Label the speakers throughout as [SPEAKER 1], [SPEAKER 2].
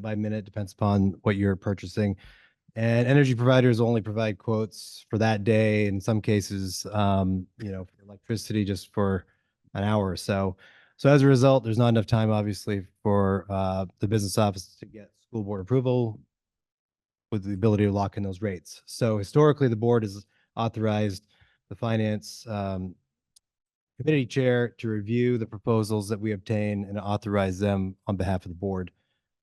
[SPEAKER 1] by minute, depends upon what you're purchasing. And energy providers only provide quotes for that day, in some cases, um, you know, for electricity just for an hour or so. So as a result, there's not enough time, obviously, for uh, the business office to get school board approval with the ability to lock in those rates. So historically, the board has authorized the finance um, committee chair to review the proposals that we obtain and authorize them on behalf of the board.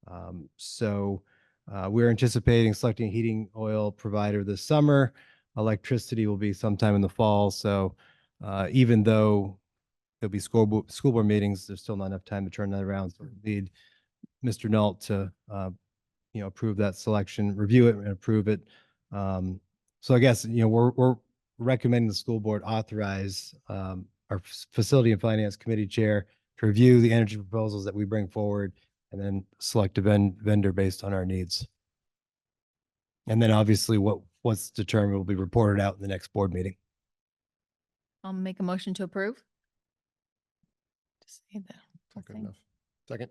[SPEAKER 1] Um, So uh, we're anticipating selecting a heating oil provider this summer. Electricity will be sometime in the fall, so uh, even though there'll be school, bo- school board meetings, there's still not enough time to turn that around. So we need Mr. Nault to, uh, you know, approve that selection, review it and approve it. Um, So I guess, you know, we're, we're recommending the school board authorize um, our f- facility and finance committee chair to review the energy proposals that we bring forward and then select a ven- vendor based on our needs. And then obviously what, what's determined will be reported out in the next board meeting.
[SPEAKER 2] I'll make a motion to approve. Just say that whole
[SPEAKER 3] Good
[SPEAKER 2] thing.
[SPEAKER 3] enough. Second.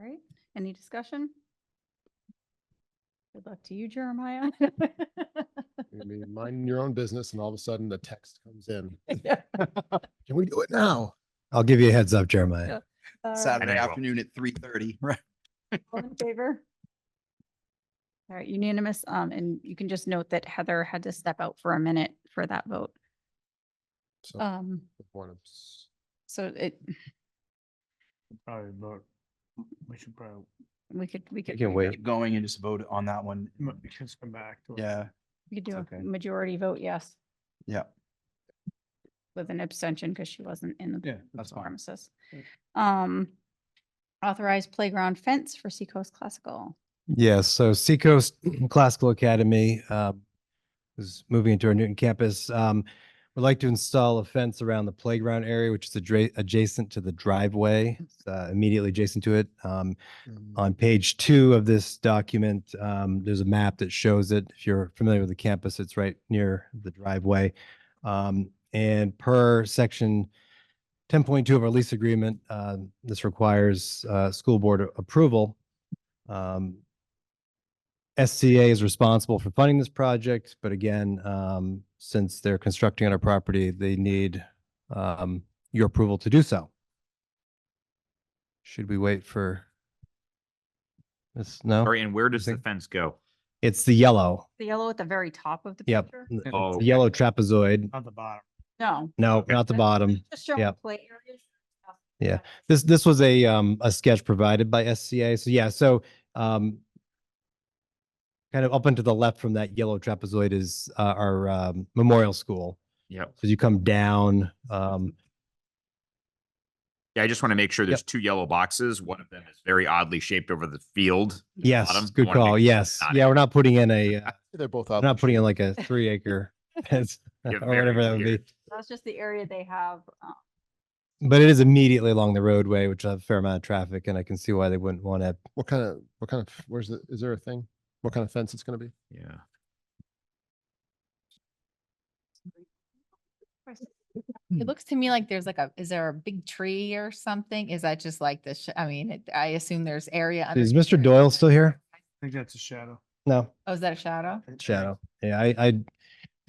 [SPEAKER 4] Right, any discussion? Good luck to you, Jeremiah.
[SPEAKER 3] You're gonna be minding your own business and all of a sudden the text comes in. Can we do it now?
[SPEAKER 1] I'll give you a heads up, Jeremiah.
[SPEAKER 4] All right,
[SPEAKER 5] Saturday
[SPEAKER 6] And I will.
[SPEAKER 5] afternoon at three thirty, right?
[SPEAKER 4] All in favor? All right, unanimous, um, and you can just note that Heather had to step out for a minute for that vote.
[SPEAKER 5] Oh.
[SPEAKER 3] So,
[SPEAKER 4] Um,
[SPEAKER 3] the point of s-
[SPEAKER 4] so it,
[SPEAKER 6] Probably vote. Oh, We should probably
[SPEAKER 4] we could, we could.
[SPEAKER 1] can wait.
[SPEAKER 5] Keep Going and just vote on that one.
[SPEAKER 6] m- just come back to it.
[SPEAKER 5] Yeah,
[SPEAKER 4] We could do
[SPEAKER 5] It's okay.
[SPEAKER 4] a majority vote, yes,
[SPEAKER 5] yeah.
[SPEAKER 4] with an abstention because she wasn't in the.
[SPEAKER 5] Yeah, that's fine.
[SPEAKER 4] Pharmacist.
[SPEAKER 5] Yeah.
[SPEAKER 4] Um, authorized playground fence for Seacoast Classical.
[SPEAKER 1] Yes, so Seacoast Classical Academy uh, is moving into our Newton campus. Um, We'd like to install a fence around the playground area, which is adra- adjacent to the driveway, uh, immediately adjacent to it. Um,
[SPEAKER 3] um,
[SPEAKER 1] On page two of this document, um, there's a map that shows it. If you're familiar with the campus, it's right near the driveway. Um, and per section ten point two of our lease agreement, uh, this requires, uh, school board a- approval. Um, SCA is responsible for funding this project, but again, um, since they're constructing on our property, they need, um, your approval to do so. Should we wait for this?
[SPEAKER 5] Oh,
[SPEAKER 1] No?
[SPEAKER 6] All right, and where does the
[SPEAKER 1] think-
[SPEAKER 6] fence go?
[SPEAKER 1] It's the yellow.
[SPEAKER 4] The yellow at the very top of the
[SPEAKER 1] Yep.
[SPEAKER 4] picture?
[SPEAKER 1] It's
[SPEAKER 6] Oh,
[SPEAKER 1] the Yellow trapezoid.
[SPEAKER 6] On the bottom.
[SPEAKER 4] No.
[SPEAKER 1] No, not the
[SPEAKER 4] That's-
[SPEAKER 1] bottom.
[SPEAKER 4] Just show
[SPEAKER 1] Yep.
[SPEAKER 4] play areas.
[SPEAKER 1] Yeah. This, this was a, um, a sketch provided by SCA. So yeah, so, um, kind of up and to the left from that yellow trapezoid is, uh, our, um, memorial school.
[SPEAKER 6] Yep.
[SPEAKER 1] So you come down, um,
[SPEAKER 6] Yeah, I just want to make sure there's two yellow boxes. One of them is very oddly shaped over the field. bottom.
[SPEAKER 1] yes,
[SPEAKER 6] I
[SPEAKER 1] good
[SPEAKER 6] wanna make
[SPEAKER 1] call.
[SPEAKER 6] sure it's
[SPEAKER 1] Yes.
[SPEAKER 6] not-
[SPEAKER 1] Yeah, we're not putting in a, uh,
[SPEAKER 3] They're both
[SPEAKER 1] we're
[SPEAKER 3] out.
[SPEAKER 1] not putting in like a three acre fence or
[SPEAKER 6] You're very
[SPEAKER 1] whatever that would be.
[SPEAKER 6] weird.
[SPEAKER 4] That's just the area they have. uh,
[SPEAKER 1] But it is immediately along the roadway, which will have a fair amount of traffic and I can see why they wouldn't want to
[SPEAKER 3] What kind of, what kind of, where's the, is there a thing? What kind of fence it's gonna be?
[SPEAKER 6] Yeah.
[SPEAKER 1] Hmm.
[SPEAKER 7] It looks to me like there's like a, is there a big tree or something? Is that just like this? I mean, it- I assume there's area. under
[SPEAKER 1] Is
[SPEAKER 7] the
[SPEAKER 1] Mr.
[SPEAKER 7] area.
[SPEAKER 1] Doyle still here?
[SPEAKER 6] I think that's a shadow.
[SPEAKER 1] No.
[SPEAKER 7] Oh, is that a shadow?
[SPEAKER 1] Shadow. Yeah, I, I,
[SPEAKER 3] it-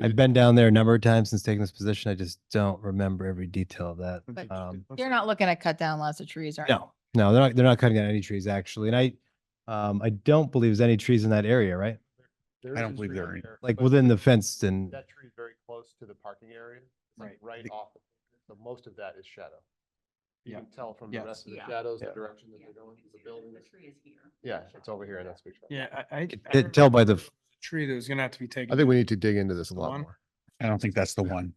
[SPEAKER 1] I've been down there a number of times since taking this position. I just don't remember every detail of that.
[SPEAKER 7] But
[SPEAKER 1] Um,
[SPEAKER 7] You're not looking to cut down lots of trees, right?
[SPEAKER 1] No, no, they're not, they're not cutting down any trees actually. And I, um, I don't believe there's any trees in that area, right?
[SPEAKER 5] I don't believe there are any.
[SPEAKER 1] Like within the fenced and,
[SPEAKER 3] That tree is very close to the parking area, It's like right
[SPEAKER 5] The-
[SPEAKER 3] off. the- So most of that is shadow. You
[SPEAKER 5] Yeah.
[SPEAKER 3] can tell from the
[SPEAKER 5] Yes.
[SPEAKER 3] rest of the
[SPEAKER 4] Yeah.
[SPEAKER 3] shadows, the
[SPEAKER 5] Yeah.
[SPEAKER 3] direction that they're going, the building. is- Yeah, it's over here and that's. what we tried.
[SPEAKER 8] Yeah, I, I.
[SPEAKER 1] Could
[SPEAKER 8] I
[SPEAKER 1] t-
[SPEAKER 8] remember
[SPEAKER 1] tell by the
[SPEAKER 8] there
[SPEAKER 1] f-
[SPEAKER 8] was a Tree that was gonna have to be taken.
[SPEAKER 3] I think we need to dig into this a
[SPEAKER 8] The
[SPEAKER 3] lot
[SPEAKER 8] one?
[SPEAKER 3] more.
[SPEAKER 5] I don't think that's the one.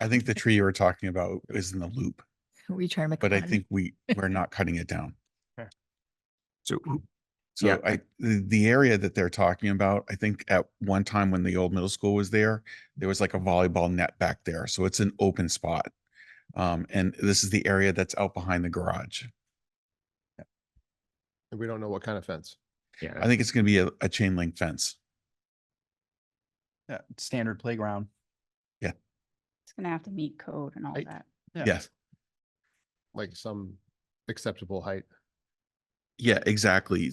[SPEAKER 5] I think the tree you were talking about is in the loop,
[SPEAKER 7] We try to make. a plan.
[SPEAKER 5] we, we're not cutting it down.
[SPEAKER 6] So who- Yeah.
[SPEAKER 5] So I, the, the area that they're talking about, I think at one time when the old middle school was there, there was like a volleyball net back there. So it's an open spot. Um, and this is the area that's out behind the garage.
[SPEAKER 3] And we don't know what kind of fence.
[SPEAKER 6] yeah,
[SPEAKER 5] I think it's gonna be a, a chain link fence.
[SPEAKER 9] Yeah, standard playground.
[SPEAKER 4] It's gonna have to meet code and all
[SPEAKER 3] I-
[SPEAKER 4] that.
[SPEAKER 9] Yeah.
[SPEAKER 5] Yes.
[SPEAKER 3] like some acceptable height.
[SPEAKER 5] Yeah, exactly.